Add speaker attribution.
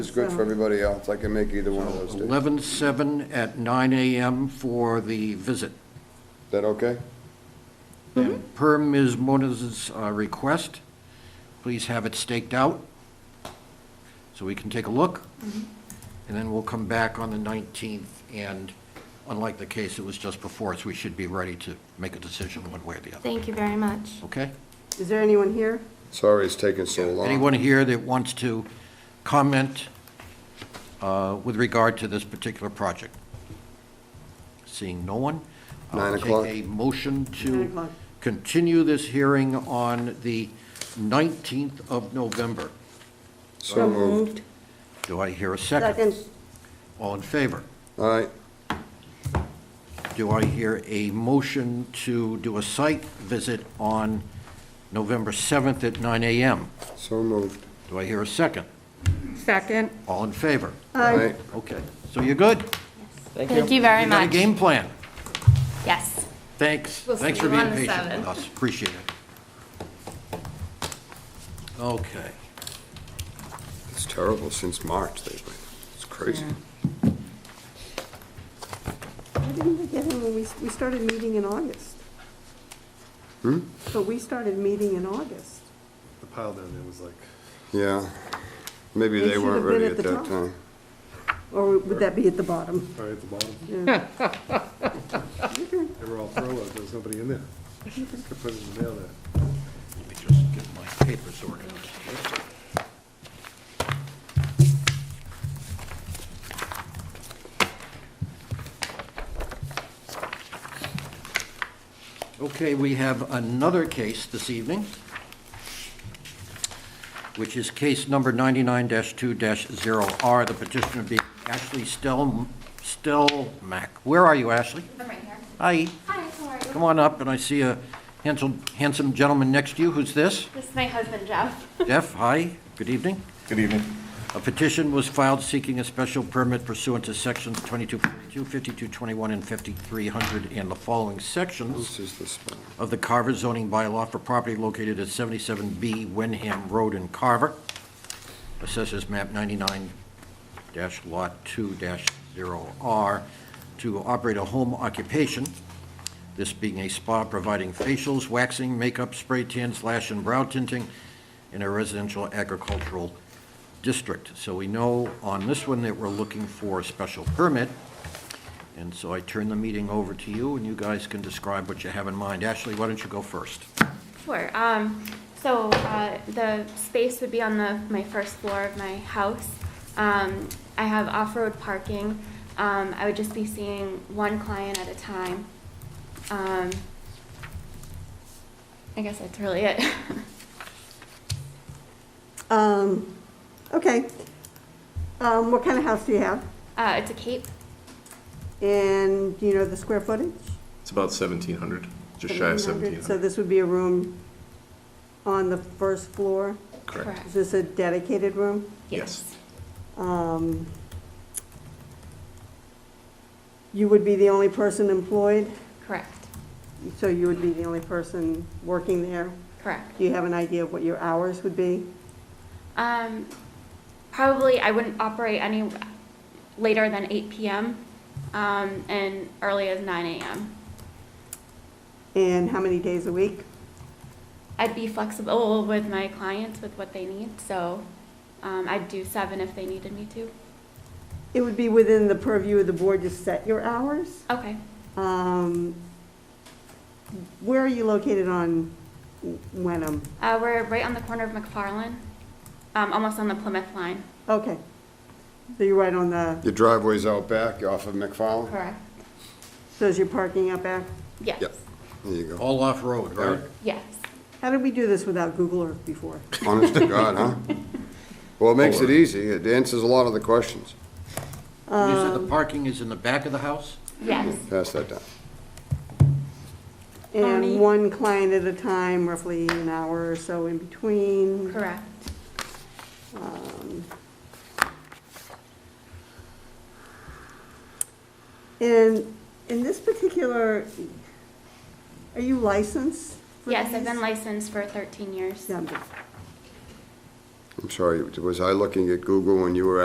Speaker 1: It's good for everybody else, I can make either one of those days. Is
Speaker 2: 11/7 at 9 AM for the visit.
Speaker 1: that okay?
Speaker 2: And Per Ms. Moniz's uh, request, please have it staked out so we can take a look. And then we'll come back on the 19th, and unlike the case that was just before us, we should be ready to make a decision one way or the other,
Speaker 3: Thank you very much.
Speaker 2: okay?
Speaker 4: Is there anyone here?
Speaker 1: Sorry it's taking so long.
Speaker 2: Anyone here that wants to comment uh, with regard to this particular project? Seeing no one? I'll
Speaker 1: Nine o'clock.
Speaker 2: Take a motion
Speaker 4: Nine
Speaker 2: to
Speaker 4: o'clock.
Speaker 2: continue this hearing on the 19th of November.
Speaker 1: So moved.
Speaker 2: Do I hear a
Speaker 4: Second.
Speaker 2: second? All in favor?
Speaker 1: All right,
Speaker 2: Do I hear a motion to do a site visit on November 7th at 9 AM?
Speaker 1: so moved.
Speaker 2: Do I hear a second?
Speaker 5: Second.
Speaker 2: All in favor?
Speaker 1: All right,
Speaker 2: Okay, so you're good?
Speaker 3: Thank you very
Speaker 2: You got a
Speaker 3: much.
Speaker 2: game plan?
Speaker 3: Yes.
Speaker 2: Thanks,
Speaker 3: We'll
Speaker 2: thanks
Speaker 3: see
Speaker 2: for
Speaker 3: you
Speaker 2: being
Speaker 3: on the
Speaker 2: patient with
Speaker 3: seventh.
Speaker 2: us, appreciate it. Okay,
Speaker 1: it's terrible since March, they've been, it's crazy.
Speaker 4: Why didn't we get him when we, we started meeting in August?
Speaker 6: Hmm?
Speaker 4: So we started meeting in August.
Speaker 7: the pile down there was like,
Speaker 1: Yeah, maybe
Speaker 4: They
Speaker 1: they
Speaker 4: should
Speaker 1: weren't
Speaker 4: have been
Speaker 1: ready
Speaker 4: at
Speaker 1: at
Speaker 4: the
Speaker 1: that
Speaker 4: top.
Speaker 1: time.
Speaker 4: Or would that be at the bottom?
Speaker 7: right at the bottom. They were all throw up, there was nobody in there. Could put it in the mail there.
Speaker 2: let me just get my papers organized. Okay, we have another case this evening, which is case number 99-2-0R, the petitioner being Ashley Stel, Stelmack. Where are you, Ashley?
Speaker 3: I'm right here.
Speaker 2: Hi.
Speaker 3: Hi, how are you?
Speaker 2: Come on up, and I see a handsome, handsome gentleman next to you. Who's this?
Speaker 3: This is my husband, Jeff.
Speaker 2: Jeff, hi, good evening.
Speaker 6: Good evening.
Speaker 2: A petition was filed seeking a special permit pursuant to sections 2242, 5221, and 5300 and the following sections
Speaker 1: This is the spot.
Speaker 2: of the Carver zoning bylaw for property located at 77B Wenham Road in Carver, assessors map 99 dash lot 2 dash 0R, to operate a home occupation, this being a spa providing facials, waxing, makeup, spray tans, lash and brow tinting in a residential agricultural district. So we know on this one that we're looking for a special permit, and so I turn the meeting over to you, and you guys can describe what you have in mind. Ashley, why don't you go first?
Speaker 3: Sure. Um, so, uh, the space would be on the, my first floor of my house. Um, I have off-road parking. Um, I would just be seeing one client at a time. Um, I guess that's really it.
Speaker 4: Um, okay. Um, what kind of house do you have?
Speaker 3: Uh, it's a cape.
Speaker 4: And do you know the square footage?
Speaker 6: It's about 1,700, just shy of
Speaker 4: So
Speaker 6: 1,700.
Speaker 4: this would be a room on the first floor?
Speaker 6: Correct.
Speaker 4: Is this a dedicated room?
Speaker 6: Yes.
Speaker 4: Um, You would be the only person employed,
Speaker 3: Correct.
Speaker 4: so you would be the only person working there.
Speaker 3: Correct.
Speaker 4: Do you have an idea of what your hours would be?
Speaker 3: Um, probably I wouldn't operate any later than eight PM, um, and early as nine AM.
Speaker 4: And how many days a week?
Speaker 3: I'd be flexible with my clients with what they need, so, um, I'd do seven if they needed me to.
Speaker 4: It would be within the purview of the board to set your hours.
Speaker 3: Okay,
Speaker 4: Um, Where are you located on Wenham?
Speaker 3: uh, we're right on the corner of McFarland, um, almost on the Plymouth line.
Speaker 4: Okay. So you're right on the,
Speaker 1: Your driveway's out back, you're off of McFarland?
Speaker 3: Correct.
Speaker 4: so is your parking out back?
Speaker 3: Yes,
Speaker 1: Yep, there you go.
Speaker 2: All off-road, right?
Speaker 3: yes.
Speaker 4: How did we do this without Google Earth before?
Speaker 1: Honest to God, huh? Well, it makes it easy, it answers a lot of the questions.
Speaker 2: You said the parking is in the back of the house?
Speaker 3: Yes,
Speaker 1: Pass that down.
Speaker 4: And
Speaker 3: Bonnie.
Speaker 4: one client at a time, roughly an hour or so in between.
Speaker 3: correct.
Speaker 4: Um, And in this particular, are you licensed? for
Speaker 3: Yes, I've been
Speaker 4: these?
Speaker 3: licensed for thirteen years.
Speaker 4: Yeah, I'm good.
Speaker 1: I'm sorry, was I looking at Google when you were